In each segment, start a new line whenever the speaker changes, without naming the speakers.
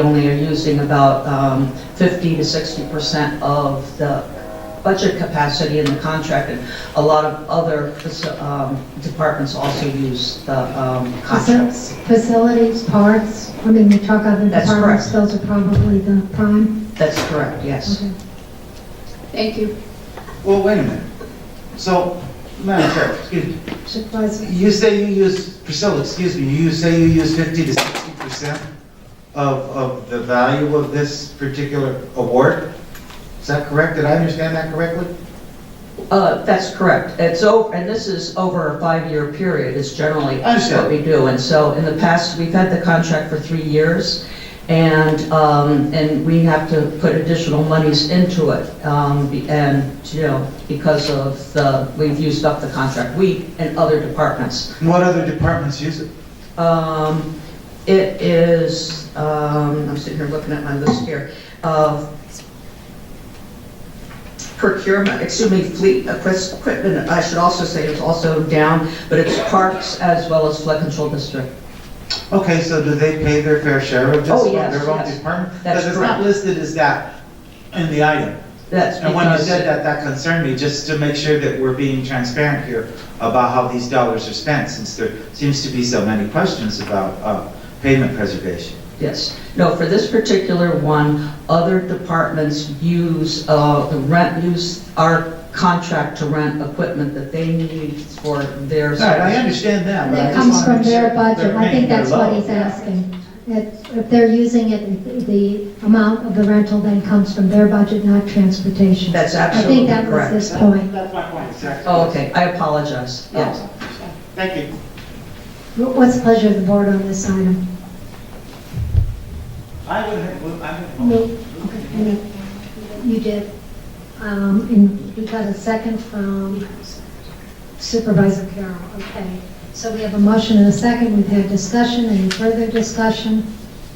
only are using about um, 50 to 60 percent of the budget capacity in the contract, and a lot of other um, departments also use the um, contracts.
Facilities, parks, I mean, we talk other
That's
departments, those are probably the prime.
That's correct, yes.
Okay.
Thank you.
Well, wait a minute. So, Madam Chair, excuse me,
Supervisor,
you say you use, Priscilla, excuse me, you say you use 50 to 60 percent of, of the value of this particular award? Is that correct? Did I understand that correctly?
Uh, That's correct. It's over, and this is over a five-year period is generally
I understand.
what we do. And so in the past, we've had the contract for three years, and, um, and we have to put additional monies into it. um, be- And, you know, because of the, we've used up the contract, we and other departments.
And what other departments use it?
Um, It is, um, I'm sitting here looking at my list here, of procurement, excuse me, fleet equipment, I should also say it's also down, but it's parks as well as flood control district.
Okay, so do they pay their fair share of this
Oh,
from
yes,
their own
yes.
department?
That's
Because it's not
correct.
listed as that in the item.
That's
And when you
because,
said that, that concerned me, just to make sure that we're being transparent here about how these dollars are spent, since there seems to be so many questions about uh, payment preservation.
yes. No, for this particular one, other departments use, uh, the rent, use our contract to rent equipment that they need for their.
All right, I understand that, but I
that
just
comes
want to
from
make sure
their
that
budget,
they're
I think
paying their
that's what
load.
he's asking. If if they're using it, the amount of the rental then comes from their budget, not transportation.
That's
I
absolutely
think that was
correct.
this point.
That's my point, exactly.
Oh, okay, I apologize,
Oh.
yes.
Thank you.
Wh- What's the pleasure of the board on this item?
I would have, well, I would have.
No. Okay, any- You did, um, and we got a second from Supervisor Carroll, okay. So we have a motion and a second, we've had discussion, any further discussion,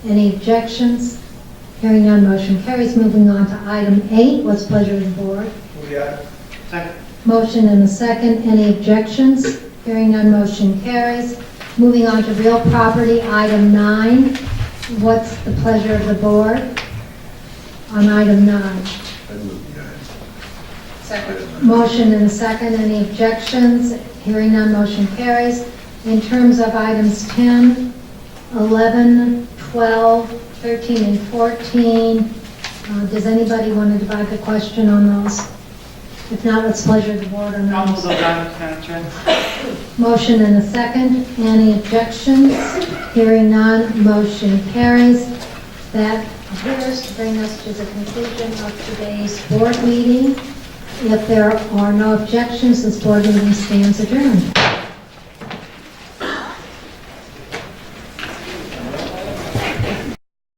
any objections? Hearing none, motion carries, moving on to item eight, what's pleasure of the board?
Second.
Motion and a second, any objections? Hearing none, motion carries. Moving on to real property, item nine, what's the pleasure of the board on item nine? Motion and a second, any objections? Hearing none, motion carries. In terms of items 10, 11, 12, 13, and 14, uh, does anybody want to divide the question on those? If not, let's pleasure the board on
I'll move
those.
those items, Madam Chair.
Motion and a second, any objections? Hearing none, motion carries. That appears to bring us to the conclusion of today's board meeting. If there are no objections, this board meeting stands adjourned.